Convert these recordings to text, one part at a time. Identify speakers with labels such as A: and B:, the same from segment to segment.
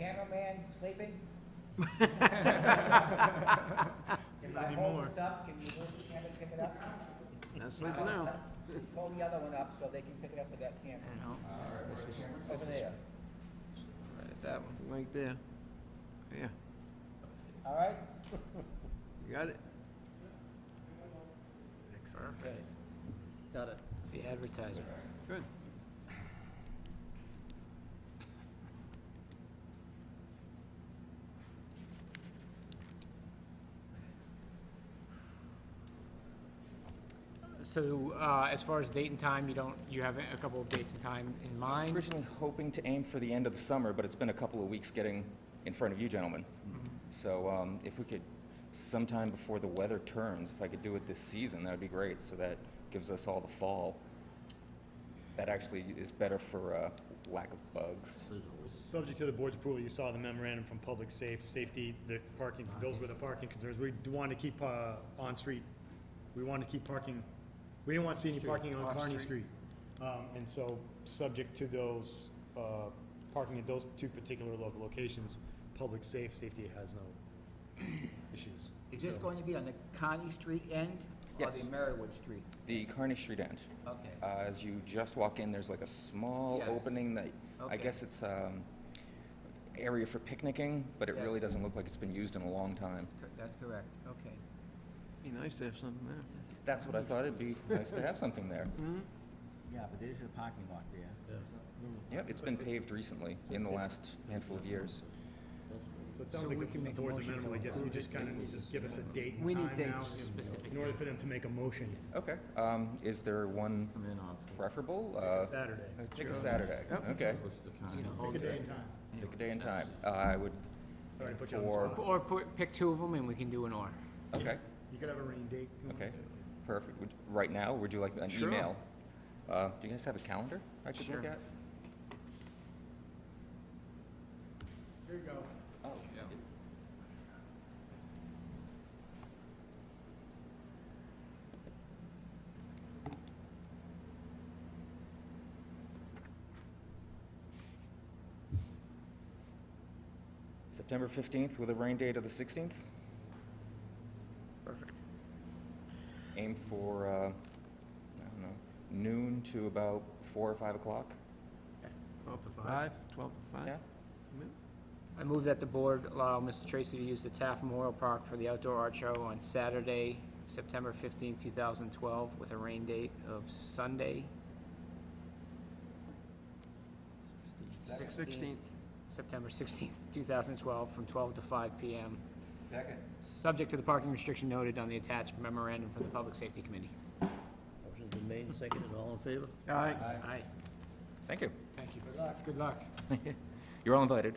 A: cameraman sleeping? If I hold
B: Anymore.
A: this up, can you move the camera, pick it up?
C: Not sleeping now.
A: Hold the other one up so they can pick it up with that camera,
C: You know, This is,
A: over there,
D: Right at that one.
C: right there. Yeah,
A: all right?
C: you got it?
D: Perfect.
A: Got it.
D: It's the advertisement.
C: Good.
D: So, uh, as far as date and time, you don't, you have a couple of dates and time in mind?
E: Originally hoping to aim for the end of the summer, but it's been a couple of weeks getting in front of you gentlemen.
A: Mm-hmm.
E: So um, if we could, sometime before the weather turns, if I could do it this season, that would be great, so that gives us all the fall. That actually is better for uh, lack of bugs.
B: Subject to the board's approval, you saw the memorandum from Public Safe, Safety, the parking,
D: Uh-huh.
B: those were the parking concerns. We do want to keep, uh, on-street, we want to keep parking, we didn't want to see any parking on Kearney Street. Um, and so, subject to those, uh, parking at those two particular local locations, Public Safe, Safety has no issues.
A: Is this
B: So-
A: going to be on the Connie Street end or
E: Yes.
A: the Merriwood Street?
E: The Kearney Street end,
A: Okay.
E: uh, as you just walk in, there's like a small
A: Yes.
E: opening that, I
A: Okay.
E: guess it's um, area for picnicking, but it really
A: Yes.
E: doesn't look like it's been used in a long time.
A: Cor- That's correct, okay.
C: Be nice to have something there.
E: That's
A: Mm-hmm.
E: what I thought, it'd be nice to have something there.
F: Yeah, but there's a parking lot there.
B: Yeah.
E: Yep, it's been paved recently, in the last handful of years.
B: So it sounds
D: So
B: like
D: we
B: the
D: can
B: the
D: make a
B: board's
D: motion to
B: amenable, I guess, you
D: approve
B: just
D: it.
B: kind of need to give us a date and
D: We need
B: time now,
D: dates, specific
B: in order
D: dates.
B: for them to make a motion,
E: Okay, um, is there one
F: Come in off.
E: preferable? Uh,
B: Saturday.
E: Pick a Saturday, okay.
F: What's the
D: You
F: kind
D: know,
B: Pick a day and time.
E: Pick a day and time. Uh, I would,
B: Sorry to put you on the
E: For-
B: spot.
D: Or put, pick two of them and we can do an or.
E: okay,
B: You could have a rain date. if you
E: okay,
B: wanted to.
E: perfect. Would- Right now, would you like an
C: Sure.
E: email? Uh, do you guys have a calendar I could look
C: Sure.
E: at?
B: Here you go.
E: Oh,
D: Yeah.
E: September fifteenth with a rain date of the sixteenth?
D: Perfect.
E: Aim for, uh, I don't know, noon to about four or five o'clock?
C: Twelve to
B: five.
C: Twelve to five.
E: Yeah?
D: I move that the board allow Mr. Tracy to use the Taft Memorial Park for the outdoor art show on Saturday, September fifteenth, two thousand twelve, with a rain date of Sunday.
C: Sixteenth.
D: September sixteenth, two thousand twelve, from twelve to five PM,
F: Second.
D: subject to the parking restriction noted on the attached memorandum from the Public Safety Committee.
F: Motion's been made and seconded, all in favor?
C: All right.
D: Aye.
E: Thank you.
D: Thank you. Good luck. Good luck.
E: You're all invited.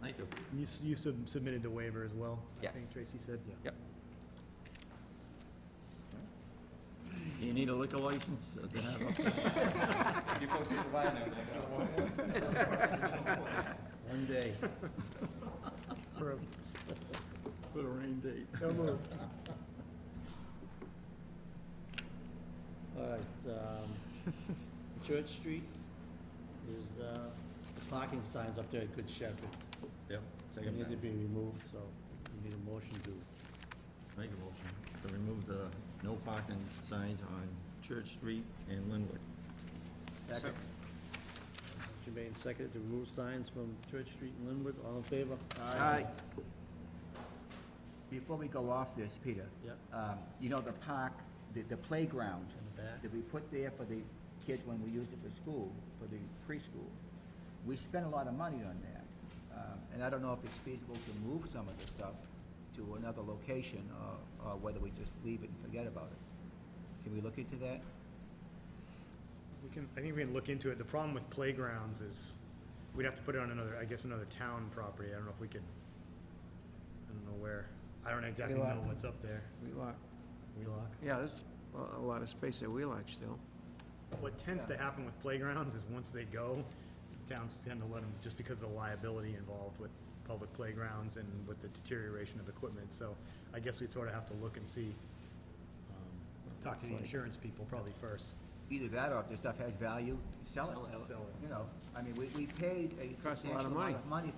F: Thank you.
B: You, s- you sub- submitted the waiver as well? I
E: Yes.
B: think Tracy said, yeah.
E: Yep.
F: Do you need a liquor license to have a-
E: You folks are providing
F: one day?
D: Approved.
F: Put a rain date.
B: So moved.
F: All right, um, Church Street is, uh, the parking signs up there at Good Shepherd.
G: Yep,
F: They
G: take them
F: need to
G: down.
F: be removed, so we need a motion to,
G: Make a motion to remove the no parking signs on Church Street and Linwood.
F: second. Motion made and seconded to remove signs from Church Street and Linwood, all in favor?
C: All right.
F: Before we go off this, Peter. Yeah.
A: Um, You know, the park, the the playground
F: In the back.
A: that we put there for the kids when we used it for school, for the preschool, we spent a lot of money on that. Um, And I don't know if it's feasible to move some of the stuff to another location or- or whether we just leave it and forget about it. Can we look into that?
B: We can, I think we can look into it. The problem with playgrounds is, we'd have to put it on another, I guess, another town property. I don't know if we could, I don't know where. I don't exactly
C: Wheelock.
B: know what's up there.
C: Wheelock.
B: Wheelock.
C: Yeah, there's a- a lot of space at Wheelock still.
B: What tends to happen with playgrounds is once they go, towns tend to let them, just because of the liability involved with public playgrounds and with the deterioration of equipment. So I guess we'd sort of have to look and see, um, talk to the insurance people probably first.
A: Either that or if the stuff has value, sell
B: Sell
A: it.
B: it.
A: You know, I mean, we we paid a
C: Costs a lot of
A: substantial amount
C: money.
A: of money